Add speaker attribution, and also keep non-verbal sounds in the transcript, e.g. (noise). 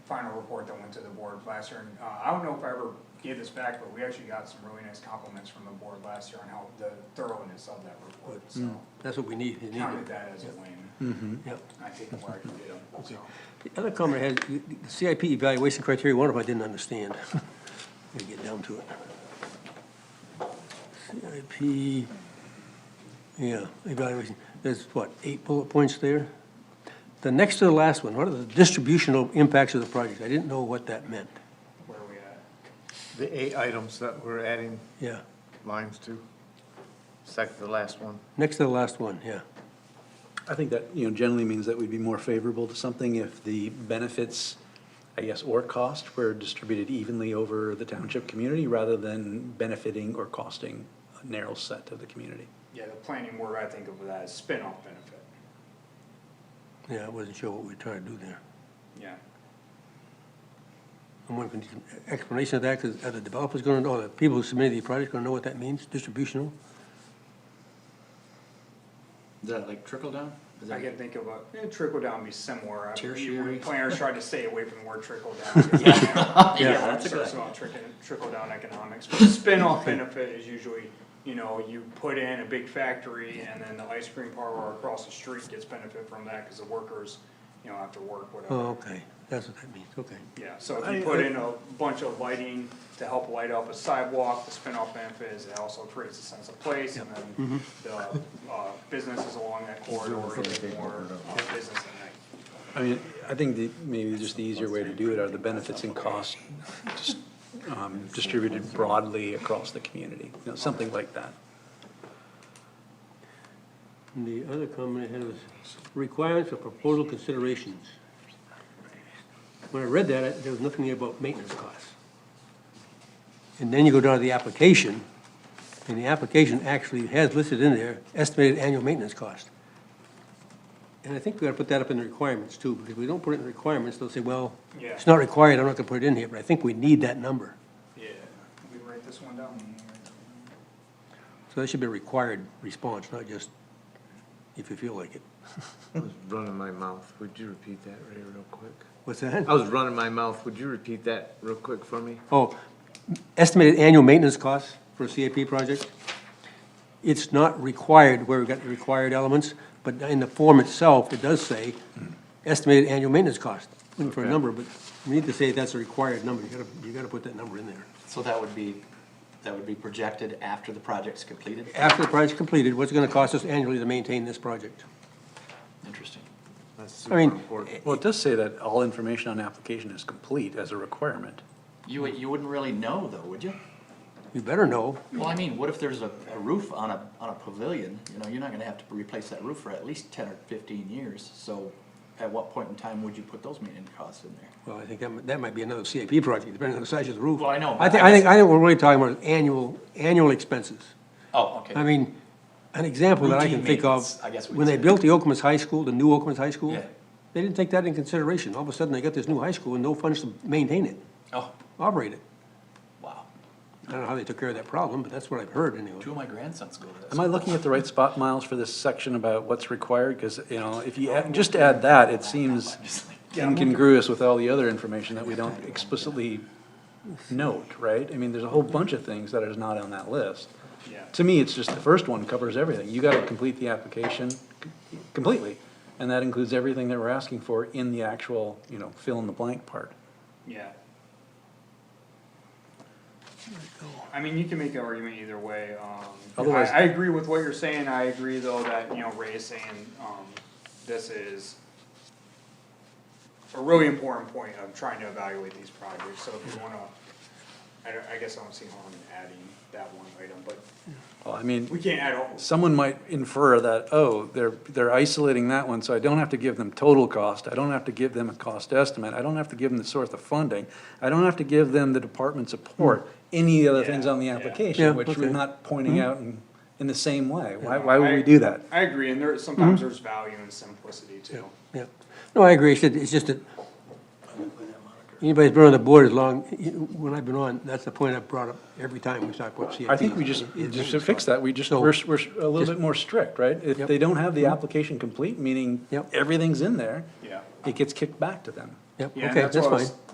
Speaker 1: final report that went to the board last year, and, uh, I don't know if I ever gave this back, but we actually got some really nice compliments from the board last year on how the thoroughness of that report, so.
Speaker 2: That's what we need, you need
Speaker 1: Counted
Speaker 2: it.
Speaker 1: that as a win,
Speaker 2: Yep.
Speaker 1: I take it where I can get them, so.
Speaker 2: The other comment I had, the the CIP evaluation criteria, one of them I didn't understand. (laughs) Let me get down to it. CIP, yeah, evaluation, there's what, eight bullet points there? The next to the last one, what are the distributional impacts of the project? I didn't know what that meant.
Speaker 1: Where are we at?
Speaker 3: The eight items that we're adding
Speaker 2: Yeah,
Speaker 3: lines to, second to the last one.
Speaker 2: next to the last one, yeah.
Speaker 4: I think that, you know, generally means that we'd be more favorable to something if the benefits, I guess, or cost were distributed evenly over the township community rather than benefiting or costing a narrow set of the community.
Speaker 1: Yeah, the planning board, I think of that as spin-off benefit,
Speaker 2: Yeah, I wasn't sure what we were trying to do there.
Speaker 1: yeah.
Speaker 2: I'm wondering, if we need some explanation of that, because are the developers gonna know, or the people who submitted the project gonna know what that means, distributional?
Speaker 5: Is that like trickle down? Is
Speaker 1: I
Speaker 5: that
Speaker 1: can think of a, eh, trickle down be similar. I mean,
Speaker 5: Tertiary?
Speaker 1: Planners try to stay away from the word trickle
Speaker 5: (laughs)
Speaker 1: down. Yeah,
Speaker 5: that's a good
Speaker 1: It's about trickle, trickle down economics, but spin-off benefit is usually, you know, you put in a big factory and then the ice cream parlor across the street gets benefit from that, cause the workers, you know, have to work, whatever.
Speaker 2: Oh, okay, that's what that means, okay.
Speaker 1: Yeah, so if you put in a bunch of lighting to help light up a sidewalk, the spin-off benefit is it also creates a sense of place and then the, uh, businesses along that corridor get more uh, business at night.
Speaker 4: I mean, I think the, maybe just the easier way to do it are the benefits and costs just, um, distributed broadly across the community, you know, something like that.
Speaker 2: And the other comment I had was requirements for proposal considerations. When I read that, I- there was nothing there about maintenance costs. And then you go down to the application, and the application actually has listed in there estimated annual maintenance cost. And I think we gotta put that up in the requirements too, because we don't put it in the requirements, they'll say, well,
Speaker 1: Yeah.
Speaker 2: it's not required, I'm not gonna put it in here, but I think we need that number.
Speaker 1: Yeah. We write this one down.
Speaker 2: So that should be a required response, not just if you feel like it.
Speaker 3: I was running my mouth. Would you repeat that Ray, real quick?
Speaker 2: What's that?
Speaker 3: I was running my mouth. Would you repeat that real quick for me?
Speaker 2: Oh, estimated annual maintenance costs for a CIP project? It's not required where we've got the required elements, but in the form itself, it does say estimated annual maintenance cost. Looking for a
Speaker 3: Okay.
Speaker 2: number, but we need to say that's a required number. You gotta, you gotta put that number in there.
Speaker 5: So that would be, that would be projected after the project's completed?
Speaker 2: After the project's completed, what's it gonna cost us annually to maintain this project?
Speaker 5: Interesting.
Speaker 3: That's
Speaker 2: I
Speaker 3: super
Speaker 2: mean,
Speaker 3: important.
Speaker 4: Well, it does say that all information on application is complete as a requirement.
Speaker 5: You, you wouldn't really know though, would you?
Speaker 2: You better know.
Speaker 5: Well, I mean, what if there's a, a roof on a, on a pavilion? You know, you're not gonna have to replace that roof for at least ten or fifteen years, so at what point in time would you put those maintenance costs in there?
Speaker 2: Well, I think that, mi- that might be another CIP project, depending on the size of the roof.
Speaker 5: Well, I know,
Speaker 2: I
Speaker 5: but
Speaker 2: think,
Speaker 5: I
Speaker 2: I think, I think we're really talking about annual, annual expenses.
Speaker 5: Oh,
Speaker 2: I
Speaker 5: okay.
Speaker 2: mean, an example that I
Speaker 5: Routine
Speaker 2: can think of,
Speaker 5: maintenance, I guess we'd
Speaker 2: when they
Speaker 5: say.
Speaker 2: built the Oklamas High School, the new Oklamas High School,
Speaker 5: Yeah.
Speaker 2: they didn't take that in consideration. All of a sudden, they got this new high school and no funds to maintain it,
Speaker 5: Oh,
Speaker 2: operate it.
Speaker 5: wow.
Speaker 2: I don't know how they took care of that problem, but that's what I've heard anyway.
Speaker 5: Two of my grandsons go to
Speaker 4: Am
Speaker 5: that.
Speaker 4: I looking at the right spot, Miles, for this section about what's required? Because, you know, if you add- just add that, it seems incongruous with all the other information that we don't explicitly note, right? I mean, there's a whole bunch of things that is not on that list.
Speaker 1: Yeah.
Speaker 4: To me, it's just the first one covers everything. You gotta complete the application c- completely. And that includes everything that we're asking for in the actual, you know, fill in the blank part.
Speaker 1: Yeah. I mean, you can make an argument either way, um, I,
Speaker 4: Otherwise-
Speaker 1: I agree with what you're saying, I agree though that, you know, Ray is saying, um, this is a really important point of trying to evaluate these projects, so if you wanna, I don't, I guess I don't see harm in adding that one item, but
Speaker 4: Well, I mean.
Speaker 1: we can't add all,
Speaker 4: someone might infer that, oh, they're, they're isolating that one, so I don't have to give them total cost, I don't have to give them a cost estimate, I don't have to give them the source of funding, I don't have to give them the department support, any of the other things on the
Speaker 1: Hmm. Yeah, yeah.
Speaker 2: Yeah,
Speaker 4: application, which we're
Speaker 2: okay. Hmm.
Speaker 4: not pointing out in, in the same way. Why,
Speaker 1: Yeah.
Speaker 4: why would
Speaker 1: I-
Speaker 4: we do that?
Speaker 1: I agree, and there, sometimes there's value in simplicity too.
Speaker 2: Yeah, no, I agree, it's, just- it's just that, anybody's been on the board as long, when I've been on, that's the point I've brought up every time we talk about CIP.
Speaker 4: I think we just, just to fix that, we just,
Speaker 2: So-
Speaker 4: we're, we're a little
Speaker 2: Just-
Speaker 4: bit more strict, right?
Speaker 2: Yep.
Speaker 4: If
Speaker 2: Hmm.
Speaker 4: they don't have the application complete, meaning
Speaker 2: Yep.
Speaker 4: everything's in there,
Speaker 1: Yeah.
Speaker 4: it gets kicked back to them.
Speaker 2: Yep,
Speaker 1: Yeah, and
Speaker 2: okay,
Speaker 1: that's
Speaker 2: that's
Speaker 1: what I was
Speaker 2: fine.